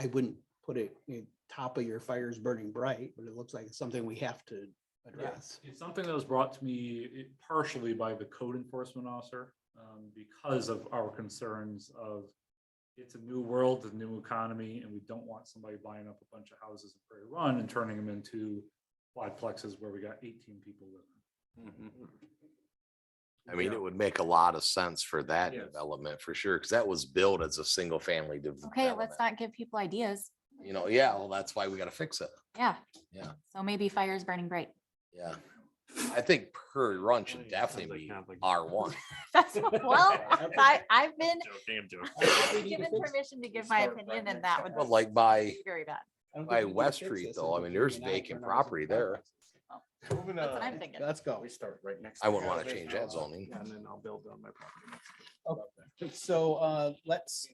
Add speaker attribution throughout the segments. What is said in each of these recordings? Speaker 1: I wouldn't put it, you know, top of your fires burning bright, but it looks like it's something we have to address.
Speaker 2: It's something that was brought to me eh, partially by the code enforcement officer, um, because of our concerns of it's a new world, a new economy, and we don't want somebody buying up a bunch of houses in Prairie Run and turning them into quadplexes where we got eighteen people living.
Speaker 3: I mean, it would make a lot of sense for that
Speaker 2: Yes.
Speaker 3: development for sure, because that was built as a single family.
Speaker 4: Okay,
Speaker 3: development.
Speaker 4: let's not give people ideas.
Speaker 3: You know, yeah, well, that's why we gotta fix it.
Speaker 4: Yeah.
Speaker 3: Yeah.
Speaker 4: So maybe fire is burning bright.
Speaker 3: Yeah. I think Prairie Run
Speaker 5: Oh,
Speaker 3: should
Speaker 5: yeah, sounds
Speaker 3: definitely
Speaker 5: like
Speaker 3: be
Speaker 5: complicated.
Speaker 3: R one.
Speaker 4: That's, what- well, I, I've been
Speaker 5: Joking, I'm joking.
Speaker 4: I've been given permission to give my opinion and that would
Speaker 3: But like by,
Speaker 4: be very bad.
Speaker 1: I don't think
Speaker 3: By
Speaker 1: we need to
Speaker 3: West
Speaker 1: fix
Speaker 3: Street,
Speaker 1: this
Speaker 3: though, I
Speaker 1: until
Speaker 3: mean, there's
Speaker 1: Jamie and I
Speaker 3: vacant
Speaker 1: turn ours
Speaker 3: property
Speaker 1: into
Speaker 3: there.
Speaker 1: complexes.
Speaker 5: Moving
Speaker 4: That's what
Speaker 5: on.
Speaker 4: I'm thinking.
Speaker 1: Let's go.
Speaker 5: We start right next.
Speaker 3: I wouldn't wanna
Speaker 5: Saturday,
Speaker 3: change that
Speaker 5: uh,
Speaker 3: zoning.
Speaker 5: And then I'll build on my property.
Speaker 1: So, uh, let's,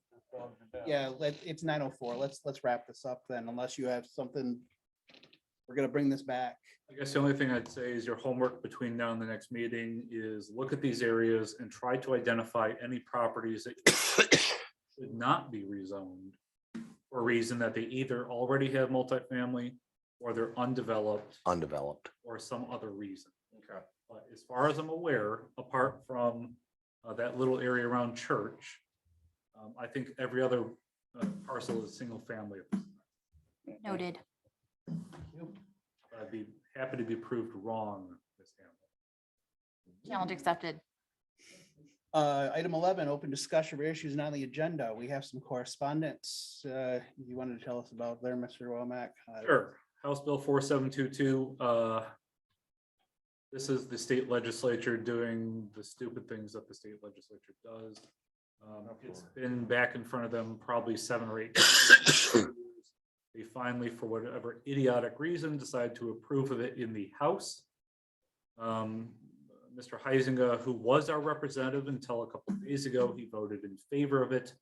Speaker 1: yeah, let, it's nine oh four. Let's, let's wrap this up then, unless you have something. We're gonna bring this back.
Speaker 2: I guess the only thing I'd say is your homework between now and the next meeting is look at these areas and try to identify any properties that should not be rezoned for a reason that they either already have multifamily or they're undeveloped
Speaker 3: undeveloped.
Speaker 2: or some other reason. But as far as I'm aware, apart from uh, that little area around church, um, I think every other uh, parcel is single family.
Speaker 4: Noted.
Speaker 2: I'd be happy to be proved wrong. Ms. Hamel.
Speaker 4: Challenge accepted.
Speaker 1: Uh, item eleven, open discussion of issues not on the agenda. We have some correspondence. Uh, you wanted to tell us about there, Mr. Womack? Uh,
Speaker 2: Sure. House Bill four seven two two, uh. This is the state legislature doing the stupid things that the state legislature does. Um, it's been back in front of them probably seven or eight. times. They finally, for whatever idiotic reason, decide to approve of it in the House. Um, Mr. Heisinger, who was our representative until a couple of days ago, he voted in favor of it.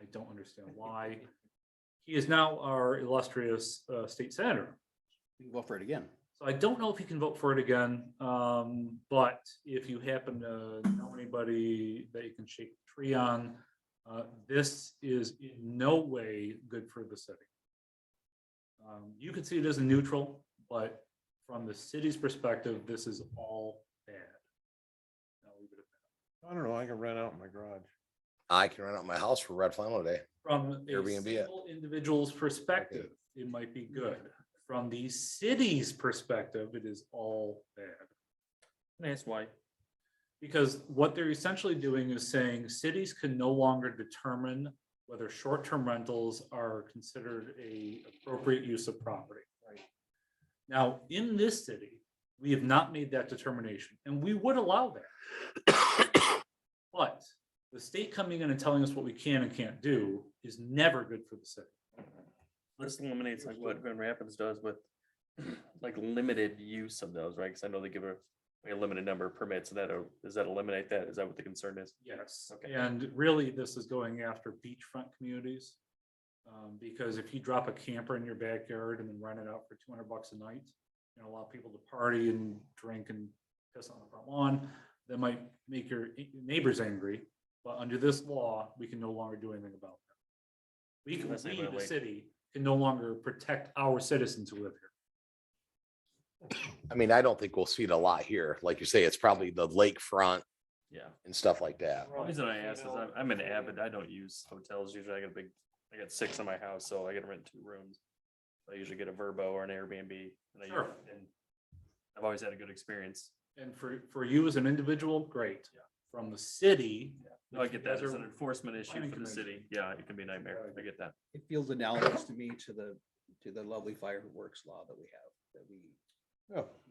Speaker 2: I don't understand why. He is now our illustrious uh, state senator.
Speaker 1: we can Go for it again.
Speaker 2: So I don't know if you can vote for it again, um, but if you happen to know anybody that you can shake the tree on, uh, this is in no way good for the city. Um, you could see it as a neutral, but from the city's perspective, this is all bad. I'll leave it at that.
Speaker 5: I don't know, I can rent out my garage.
Speaker 3: I can rent out my house for Red Flannel Day.
Speaker 2: From a
Speaker 3: Airbnb it.
Speaker 2: single individual's perspective, it might be good. From the city's perspective, it is all bad.
Speaker 5: That's why.
Speaker 2: Because what they're essentially doing is saying cities can no longer determine whether short-term rentals are considered a appropriate use of property. Now, in this city, we have not made that determination, and we would allow that. But the state coming in and telling us what we can and can't do is never good for the city.
Speaker 6: This eliminates like what Grand Rapids does with like limited use of those, right? Cause I know they give a, like, a limited number of permits and that, uh, does that eliminate that? Is that what the concern is?
Speaker 2: Yes,
Speaker 6: Okay.
Speaker 2: and really, this is going after beachfront communities. Um, because if you drop a camper in your backyard and then rent it out for two hundred bucks a night, and allow people to party and drink and piss on the front lawn, that might make your e- neighbors angry, but under this law, we can no longer do anything about that. We can,
Speaker 6: Unless they
Speaker 2: we, the
Speaker 6: violate-
Speaker 2: city, can no longer protect our citizens who live here.
Speaker 3: I mean, I don't think we'll see it a lot here. Like you say, it's probably the lakefront
Speaker 6: Yeah.
Speaker 3: and stuff like that.
Speaker 6: The reason I ask is I'm, I'm an avid, I don't use hotels usually. I got a big, I got six in my house, so I gotta rent two rooms. I usually get a Verbo or an Airbnb and I,
Speaker 2: Sure.
Speaker 6: and I've always had a good experience.
Speaker 2: And for, for you as an individual, great. From the city.
Speaker 6: No, I
Speaker 2: if you
Speaker 6: get that.
Speaker 2: guys
Speaker 6: It's
Speaker 2: are-
Speaker 6: an enforcement issue
Speaker 2: planning
Speaker 6: for the
Speaker 2: commission.
Speaker 6: city. Yeah, it can be a nightmare. I get that.
Speaker 1: It feels analogous to me to the, to the lovely fireworks law that we have, that we,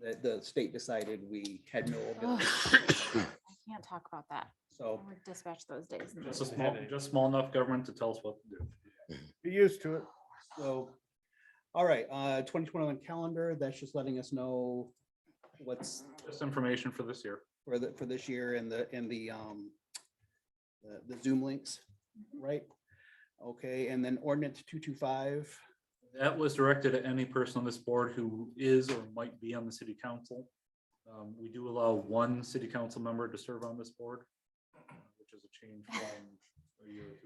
Speaker 1: that the state decided we had no
Speaker 4: Ugh.
Speaker 1: ability.
Speaker 4: I can't talk about that. I
Speaker 1: So
Speaker 4: would dispatch those days.
Speaker 2: Just a small, just small enough government to tell us what to do.
Speaker 5: Be used to it.
Speaker 1: So, all right, uh, twenty twenty-one calendar, that's just letting us know what's
Speaker 2: Just information for this year.
Speaker 1: for the, for this year and the, and the, um, the- the Zoom links, right? Okay, and then ordinance two-two-five,
Speaker 2: That was directed at any person on this board who is or might be on the city council. Um, we do allow one city council member to serve on this board, which is a change from a year or two